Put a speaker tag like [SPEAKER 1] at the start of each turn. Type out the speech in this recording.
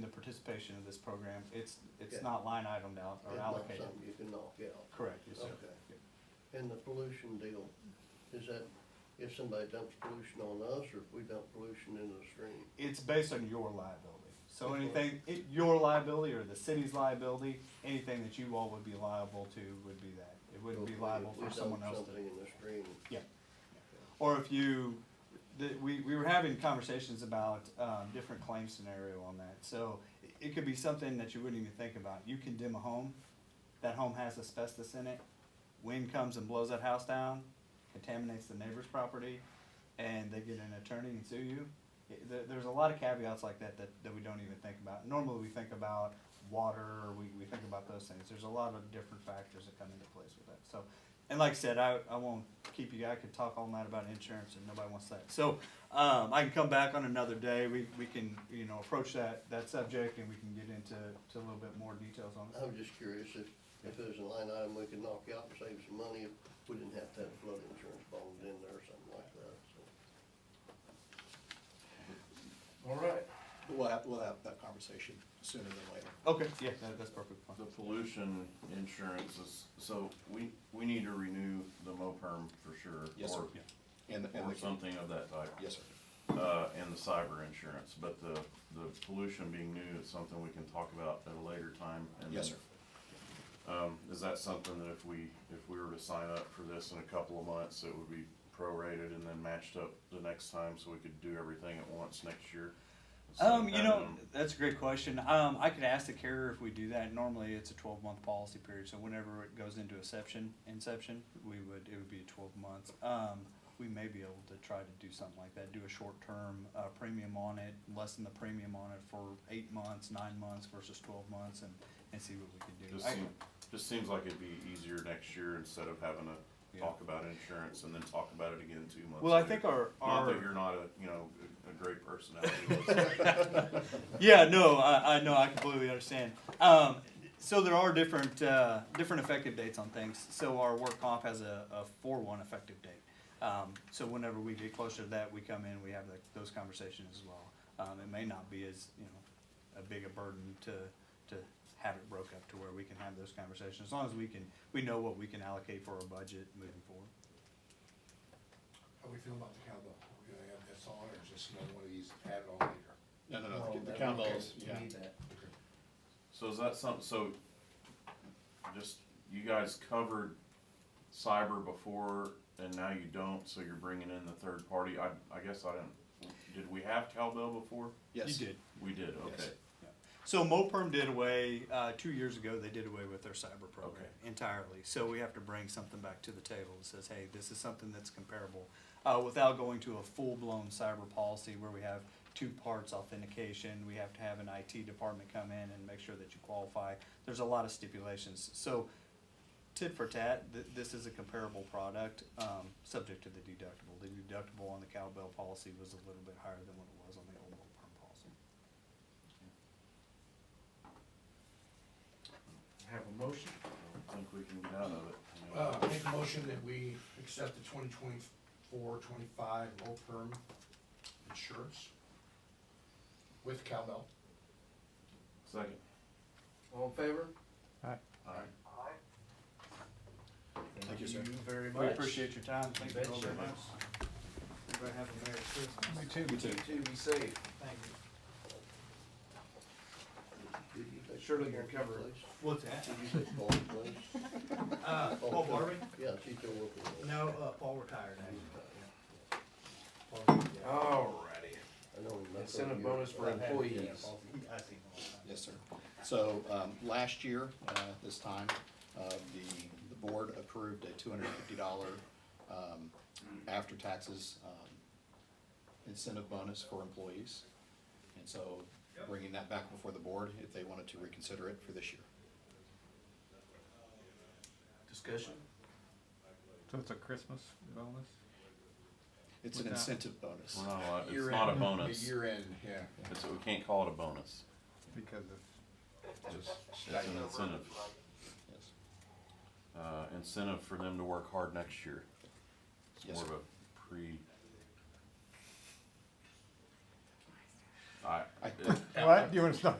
[SPEAKER 1] the participation of this program, it's,
[SPEAKER 2] Yeah.
[SPEAKER 1] it's not line itemed out
[SPEAKER 2] It's
[SPEAKER 1] or
[SPEAKER 2] not
[SPEAKER 1] allocated.
[SPEAKER 2] something You can knock out.
[SPEAKER 1] Correct, yes, sir.
[SPEAKER 2] Okay. And the pollution deal, is that if somebody dumps pollution on us or if we dump pollution into the stream?
[SPEAKER 1] It's based on your liability. So
[SPEAKER 2] Okay.
[SPEAKER 1] anything, it, your liability or the city's liability, anything that you all would be liable to would be that. It wouldn't be
[SPEAKER 2] If
[SPEAKER 1] liable
[SPEAKER 2] we
[SPEAKER 1] for someone
[SPEAKER 2] dump
[SPEAKER 1] else to.
[SPEAKER 2] Something in the stream.
[SPEAKER 1] Yeah. Or if you, the, we, we were having conversations about, um, different claim scenario on that. So it, it could be something that you wouldn't even think about. You condemn a home, that home has asbestos in it. Wind comes and blows that house down, contaminates the neighbor's property, and they get an attorney and sue you. It- There, there's a lot of caveats like that, that, that we don't even think about. Normally, we think about water, or we, we think about those things. There's a lot of different factors that come into place with that, so. And like I said, I, I won't keep you, I could talk all night about insurance and nobody wants that. So, um, I can come back on another day, we, we can, you know, approach that, that subject and we can get into, to a little bit more details on
[SPEAKER 2] I
[SPEAKER 1] it.
[SPEAKER 2] was just curious if, if it was a line item we could knock out and save some money if we didn't have to have flood insurance bond in there or something like that, so.
[SPEAKER 3] All right.
[SPEAKER 4] We'll have, we'll have that conversation sooner than later.
[SPEAKER 1] Okay, yeah, that, that's perfect.
[SPEAKER 5] The pollution insurance is, so we, we need to renew the MOPERM for sure.
[SPEAKER 4] Yes, sir.
[SPEAKER 5] or-
[SPEAKER 1] Yeah.
[SPEAKER 4] And, and
[SPEAKER 5] Or
[SPEAKER 4] the-
[SPEAKER 5] something of that type.
[SPEAKER 4] Yes, sir.
[SPEAKER 5] Uh, and the cyber insurance, but the, the pollution being new is something we can talk about at a later time. and
[SPEAKER 4] Yes, sir.
[SPEAKER 5] then, Um, is that something that if we, if we were to sign up for this in a couple of months, it would be prorated and then matched up the next time so we could do everything at once next year? instead of
[SPEAKER 1] Um, you know,
[SPEAKER 5] having-
[SPEAKER 1] that's a great question. Um, I could ask the carrier if we do that. Normally, it's a twelve month policy period, so whenever it goes into inception, inception, we would, it would be twelve months. Um, we may be able to try to do something like that, do a short term, uh, premium on it, lessen the premium on it for eight months, nine months versus twelve months and, and see what we can do.
[SPEAKER 5] Just
[SPEAKER 1] I-
[SPEAKER 5] seem, just seems like it'd be easier next year instead of having to
[SPEAKER 1] Yeah.
[SPEAKER 5] talk about insurance and then talk about it again two months.
[SPEAKER 1] Well, I
[SPEAKER 5] later.
[SPEAKER 1] think our,
[SPEAKER 5] Not
[SPEAKER 1] our.
[SPEAKER 5] that you're not a, you know, a a great personality. but-
[SPEAKER 1] Yeah, no, I, I know, I completely understand. Um, so there are different, uh, different effective dates on things. So our work comp has a, a four one effective date. Um, so whenever we get closer to that, we come in, we have the, those conversations as well. Um, it may not be as, you know, a big a burden to, to have it broke up to where we can have those conversations, as long as we can, we know what we can allocate for our budget moving forward.
[SPEAKER 3] How we feel about the cowbell? Are we gonna have this on or is this another one of these added on later?
[SPEAKER 4] No, no, no, the cowbells, yeah.
[SPEAKER 3] Okay.
[SPEAKER 5] So is that something, so just, you guys covered cyber before and now you don't, so you're bringing in the third party? I, I guess I didn't, did we have cowbell before?
[SPEAKER 4] Yes.
[SPEAKER 1] You did.
[SPEAKER 5] We did,
[SPEAKER 4] Yes.
[SPEAKER 5] okay.
[SPEAKER 1] So MoPerm did away, uh, two years ago, they did away with their cyber program
[SPEAKER 5] Okay.
[SPEAKER 1] entirely. So we have to bring something back to the table that says, hey, this is something that's comparable, uh, without going to a full-blown cyber policy where we have two parts authentication, we have to have an IT department come in and make sure that you qualify. There's a lot of stipulations. So tit for tat, th- this is a comparable product, um, subject to the deductible. The deductible on the cowbell policy was a little bit higher than what it was on the old MoPerm policy.
[SPEAKER 3] Have a motion?
[SPEAKER 5] I think we can get out of it. you know.
[SPEAKER 3] Uh, make a motion that we accept the 2024-25 low perm insurance with cowbell.
[SPEAKER 5] Second.
[SPEAKER 6] All in favor?
[SPEAKER 5] All right.
[SPEAKER 4] Thank you, sir.
[SPEAKER 6] very
[SPEAKER 1] We appreciate your time, thank you all
[SPEAKER 6] Betcha.
[SPEAKER 1] very much. Everybody have a Merry Christmas.
[SPEAKER 4] You too.
[SPEAKER 6] Two, be safe.
[SPEAKER 1] Thank you.
[SPEAKER 2] Did you take
[SPEAKER 6] Surely
[SPEAKER 2] Barbie's
[SPEAKER 6] you're covered.
[SPEAKER 2] place?
[SPEAKER 1] What's that?
[SPEAKER 2] Did you take Barbie's place?
[SPEAKER 1] Uh, Paul Barbie?
[SPEAKER 2] Yeah, she's still working. on it.
[SPEAKER 1] No, uh, Paul retired actually. Oh,
[SPEAKER 6] Alrighty.
[SPEAKER 2] I know he messed up
[SPEAKER 6] Incentive
[SPEAKER 2] your-
[SPEAKER 6] bonus for employees.
[SPEAKER 1] I see him all the time.
[SPEAKER 4] Yes, sir. So, um, last year, uh, this time, uh, the, the board approved a two hundred and fifty dollar, um, after taxes, um, incentive bonus for employees. And so bringing that back before the board if they wanted to reconsider it for this year.
[SPEAKER 6] Discussion?
[SPEAKER 7] So it's a Christmas bonus?
[SPEAKER 4] It's an
[SPEAKER 7] Without-
[SPEAKER 4] incentive bonus.
[SPEAKER 5] We're not allowed- it's
[SPEAKER 3] Year
[SPEAKER 5] not a
[SPEAKER 3] end,
[SPEAKER 5] bonus.
[SPEAKER 3] the Year end, yeah.
[SPEAKER 5] It's, we can't call it a bonus.
[SPEAKER 7] Because it's
[SPEAKER 3] Just
[SPEAKER 5] It's an
[SPEAKER 3] stipend.
[SPEAKER 5] incentive,
[SPEAKER 4] Yes.
[SPEAKER 5] uh, incentive for them to work hard next year. It's
[SPEAKER 4] Yes,
[SPEAKER 5] more of
[SPEAKER 4] sir.
[SPEAKER 5] a pre. I,
[SPEAKER 4] I think
[SPEAKER 7] What? You wanna stop